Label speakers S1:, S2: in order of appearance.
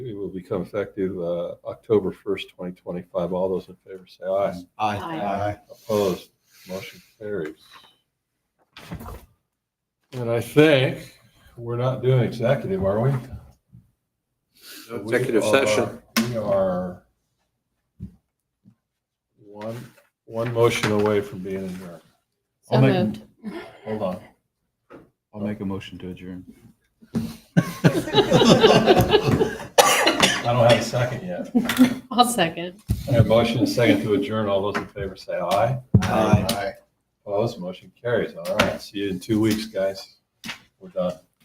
S1: become effective uh, October 1st, 2025. All those in favor say aye.
S2: Aye.
S1: Opposed, motion carries. And I think we're not doing executive, are we?
S3: Executive
S1: We are-
S3: session.
S1: We are one, one motion away from being adjourned.
S2: So
S4: I'll make-
S2: moved.
S1: Hold on.
S4: I'll make a motion to adjourn.
S1: I don't have a second yet.
S2: I'll second.
S1: I have a motion and a second to adjourn. All those in favor say aye.
S3: Aye.
S1: Opposed, motion carries. All right, see you in two weeks, guys. We're done.